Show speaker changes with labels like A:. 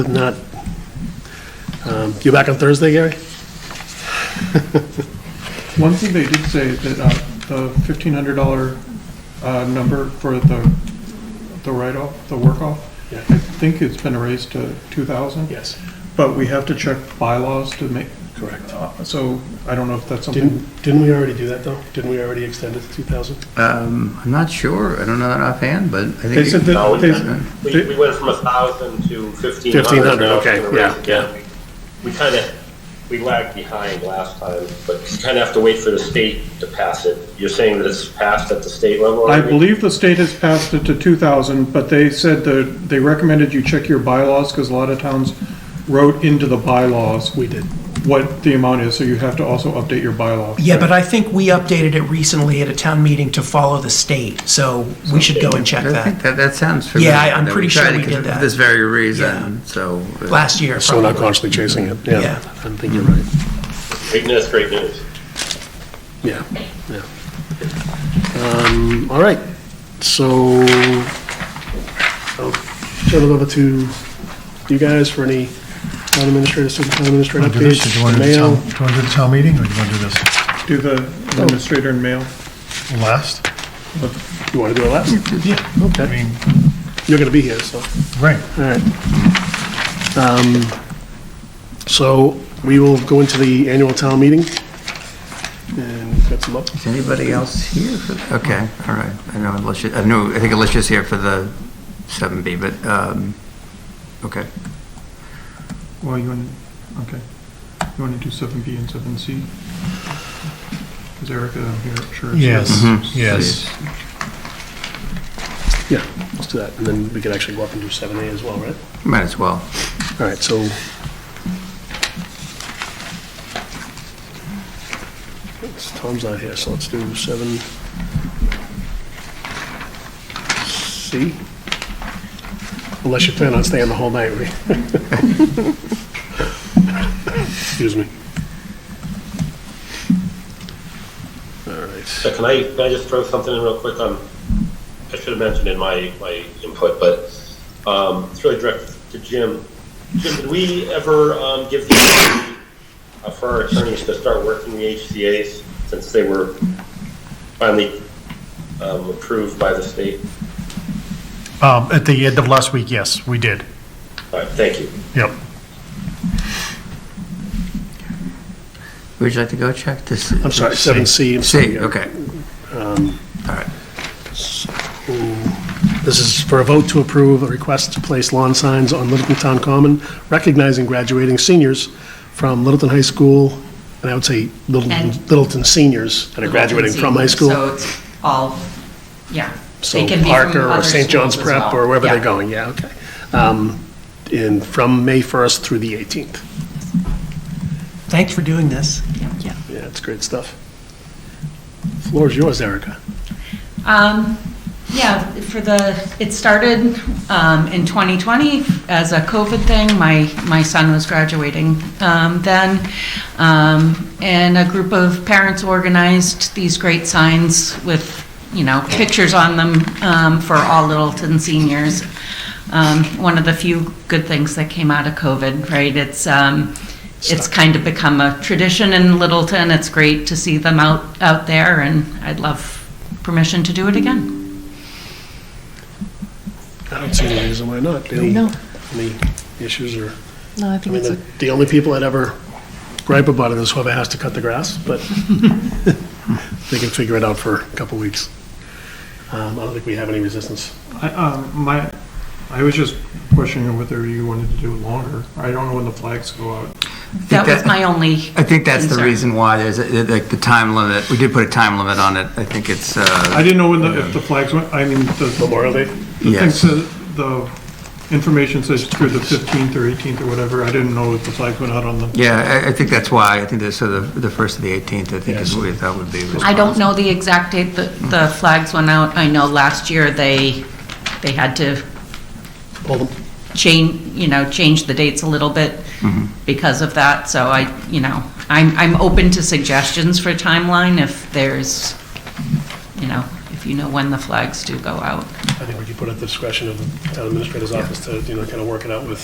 A: Not, um, you back on Thursday, Gary?
B: One thing they did say that uh, the fifteen hundred dollar uh, number for the, the write-off, the work-off,
A: Yeah.
B: I think it's been raised to two thousand,
A: Yes,
B: but we have to check bylaws to make,
A: correct.
B: uh, so I don't know if that's something.
A: Didn't, didn't we already do that, though? Didn't we already extend it to 2,000?
C: Um, I'm not sure. I don't know that offhand, but I think.
B: They said
D: No,
B: that,
D: we
B: they,
D: didn't. We, we went from a thousand to fifteen hundred.
A: 1,500, okay, yeah, yeah.
D: We kind of, we lagged behind last time, but you kind of have to wait for the state to pass it. You're saying that it's passed at the state level?
B: I
D: already?
B: believe the state has passed it to two thousand, but they said that, they recommended you check your bylaws, because a lot of towns wrote into the bylaws
A: We did.
B: what the amount is, so you have to also update your bylaw.
E: Yeah, but I think we updated it recently at a town meeting to follow the state, so we should go and check
C: I
E: that,
C: think that, that sounds familiar.
E: I- I'm
C: that we
E: pretty sure
C: tried it
E: we did
C: for
E: that.
C: This very reason, so. uh,
E: last year.
A: So we're not
E: probably.
A: constantly chasing it,
E: Yeah.
A: yeah. I think you're right.
D: Great news, great news.
A: Yeah, yeah. Um, All right, so I'll turn it over to you guys for any town administrator, superintendent administrator
F: Want to do this, or do
A: updates.
F: you want to do the
A: mail.
F: town, do you want to do the town meeting, or do you want to do this
B: Do the administrator and mail.
F: last?
A: You want to do it last?
F: Yeah. I
A: Okay,
F: mean,
A: you're going to be here, so.
F: right,
A: All right. Um, So we will go into the annual town meeting and get some up.
C: Is anybody else here for that? Okay, all right. I know Alicia, I know, I think Alicia's here for the seven B, but, um, okay.
B: Well, you want, okay. You want to do seven B and seven C? Is Erica here? Sure. it's
F: Yes.
B: her.
C: Mhm.
F: yes.
A: Yeah, let's do that. And then we could actually go up and do 7A as well, right?
C: Might as well.
A: All right, so. It's- Tom's not here, so let's do 7C. Unless you plan on staying the whole night. we- Excuse me. All right.
D: So can I, can I just throw something in real quick on, I should have mentioned in my, my input, but, um, it's really directed to Jim. Jim, did we ever, um, give the, opportunity, uh, for our attorneys to start working the HCA's since they were finally, um, approved by the state?
F: Um, at the end of last week, yes, we did,
D: All right, thank you.
F: yep.
C: Would you like to go check this?
A: I'm sorry, 7C. I'm sorry, Um,
C: See,
A: yeah.
C: okay. All right.
A: This is for a vote to approve a request to place lawn signs on Littleton Town Common, recognizing graduating seniors from Littleton High School, and I would say Littleton
G: And-
A: Littleton seniors that are graduating from high school.
G: So it's all, yeah.
A: So
G: They can be from
A: Parker or
G: other
A: St. John's
G: schools as
A: Prep
G: well.
A: or wherever they're
G: Yeah.
A: going, yeah, okay. Um, And from May 1st through the 18th.
E: Thanks for doing this.
G: Yeah.
A: Yeah, it's great stuff. Floor is yours, Erica.
G: Um, yeah, for the, it started, um, in 2020 as a COVID thing. My, my son was graduating, um, then. Um, and a group of parents organized these great signs with, you know, pictures on them, um, for all Littleton seniors. Um, one of the few good things that came out of COVID, right? It's, um, it's kind of become a tradition in Littleton. It's great to see them out, out there and I'd love permission to do it again.
A: I don't see any reason why not. Any-
H: No.
A: Any issues or?
H: No, I
A: I
H: think
A: mean,
H: it's
A: the
H: a,
A: the only people that ever gripe about it is whoever has to cut the grass, but they can figure it out for a couple weeks. Um, I don't think we have any resistance.
B: I, um, my, I was just questioning whether you wanted to do it longer. I don't know when the flags go out.
G: That was
C: that-
G: my only,
C: I think that's the
G: Concern.
C: reason why there's, a- like, the time limit. We did put a time limit on it. I think it's, uh,
B: I didn't know when the, if the flags went, I mean, the,
A: Memorial Day?
B: the thing
C: Yes.
B: says, the information says through the fifteenth or eighteenth or whatever. I didn't know if the flags went out on the
C: Yeah, I, I think that's why, I think that's, so the, the first of the 18th, I think is what we thought would be responsible.
G: I don't know the exact date that the flags went out. I know last year they, they had to
A: Pull them.
G: change, you know, change the dates a little bit
C: Mm-hmm.
G: because of that. So I, you know, I'm, I'm open to suggestions for timeline if there's, you know, if you know when the flags do go out.
A: I think we could put at the discretion of the town administrator's office to, you know, kind of work it out with